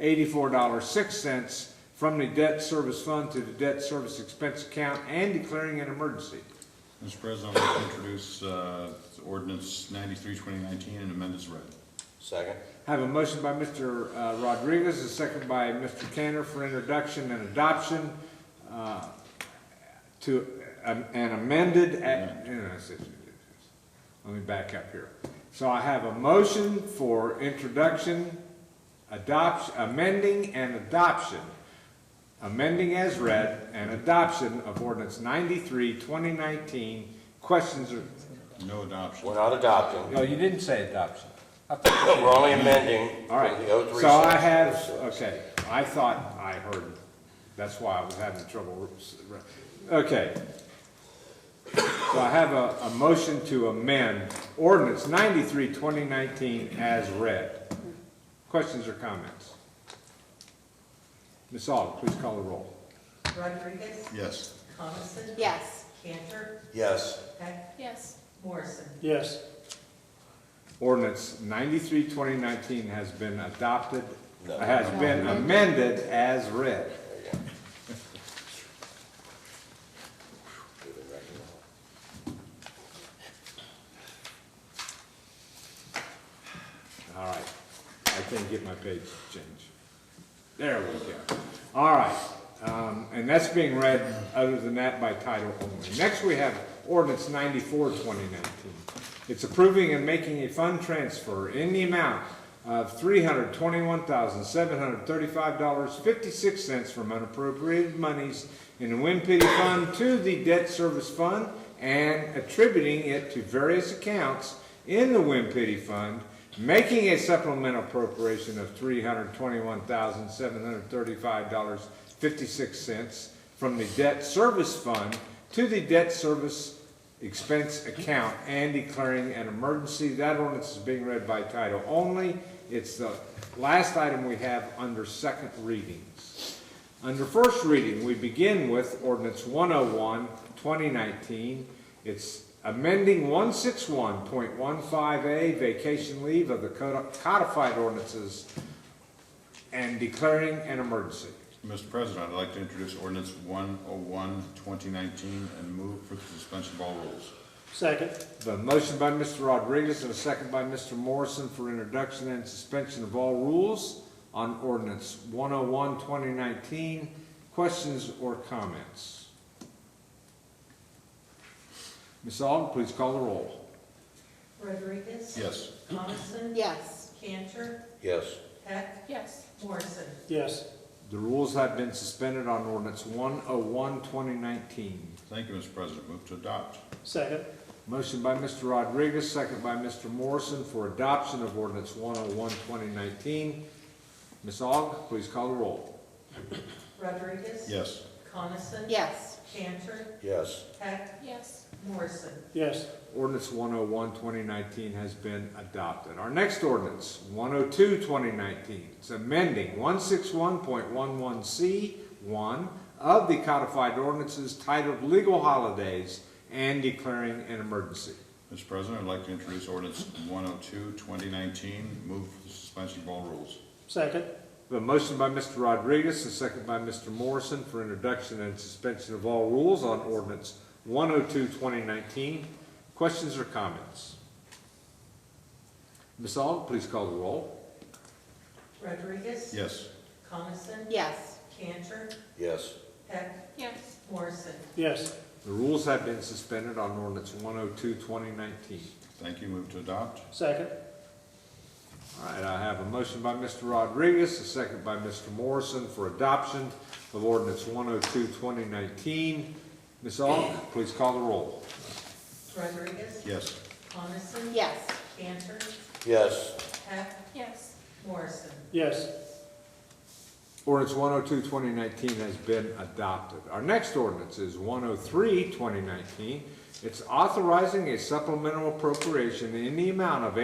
eighty-four dollars six cents from the debt service fund to the debt service expense account and declaring an emergency. Mr. President, I'd like to introduce uh, ordinance 93, 2019, and amend as read. Second. I Have a motion by Mr. uh, Rodriguez, a second by Mr. Cantor for introduction and adoption uh, to, um, and amended, at- you know, it's- it's- it's- let me back up here. So I have a motion for introduction, adoption, amending and adoption, amending as read, and adoption of ordinance 93, 2019. Questions or, No adoption. We're not adopting, no, you didn't say adoption. I thought we're only amending All right, from the O three. so I have, okay, I thought I heard, that's why I was having trouble. Okay. So I have a, a motion to amend ordinance 93, 2019, as read. Questions or comments? Ms. Aug, please call the roll. Rodriguez? Yes. Coniston? Yes. Cantor? Yes, Heck? Yes. Morrison? yes, Ordinance 93, 2019 has been adopted, No. has been amended as read. All right, I can get my page changed. There we go. All right, um, and that's being read, other than that, by title only. Next, we have ordinance 94, 2019. It's approving and making a fund transfer in the amount of $321,735.56 from unappropriated monies in the Wind Pity Fund to the Debt Service Fund and attributing it to various accounts in the Wind Pity Fund making a supplemental appropriation of three hundred twenty-one thousand, seven hundred thirty-five dollars, fifty-six cents from the debt service fund to the debt service expense account and declaring an emergency. That ordinance is being read by title only. It's the last item we have under second readings. Under first reading, we begin with ordinance 101, 2019. It's amending 161.15A vacation leave of the codified ordinances and declaring an emergency. Mr. President, I'd like to introduce ordinance 101, 2019, and move for the suspension of all rules. second, The motion by Mr. Rodriguez and a second by Mr. Morrison for introduction and suspension of all rules on ordinance 101, 2019. Questions or comments? Ms. Aug, please call the roll. Rodriguez? Yes. Coniston? Yes. Cantor? yes, Heck? Yes. Morrison? yes, The rules have been suspended on ordinance 101, 2019. Thank you, Mr. President. Move to adopt. second, Motion by Mr. Rodriguez, second by Mr. Morrison for adoption of ordinance 101, 2019. Ms. Aug, please call the roll. Rodriguez? Yes. Coniston? Yes. Cantor? yes, Heck? Yes. Morrison? yes, Ordinance 101, 2019 has been adopted. Our next ordinance, 102, 2019, it's amending 161.11C1 of the codified ordinances titled Legal Holidays and declaring an emergency. Mr. President, I'd like to introduce ordinance 102, 2019, move for the suspension of all rules. second, The motion by Mr. Rodriguez, a second by Mr. Morrison for introduction and suspension of all rules on ordinance 102, 2019. Questions or comments? Ms. Aug, please call the roll. Rodriguez? Yes. Coniston? Yes. Cantor? yes, Heck? Yes. Morrison? yes, The rules have been suspended on ordinance 102, 2019. Thank you. Move to adopt. second, All right, I have a motion by Mr. Rodriguez, a second by Mr. Morrison for adoption of ordinance 102, 2019. Ms. Aug, please call the roll. Rodriguez? Yes. Coniston? Yes. Cantor? yes, Heck? Yes. Morrison? yes, Ordinance 102, 2019 has been adopted. Our next ordinance is 103, 2019. It's authorizing a supplemental appropriation in the amount of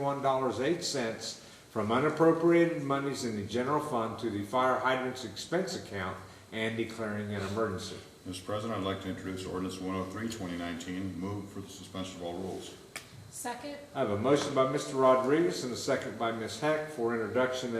$8,871.08 from unappropriated monies in the general fund to the fire hydrants expense account and declaring an emergency. Mr. President, I'd like to introduce ordinance 103, 2019, move for the suspension of all rules. Second? I have a motion by Mr. Rodriguez and a second by Ms. Heck for introduction and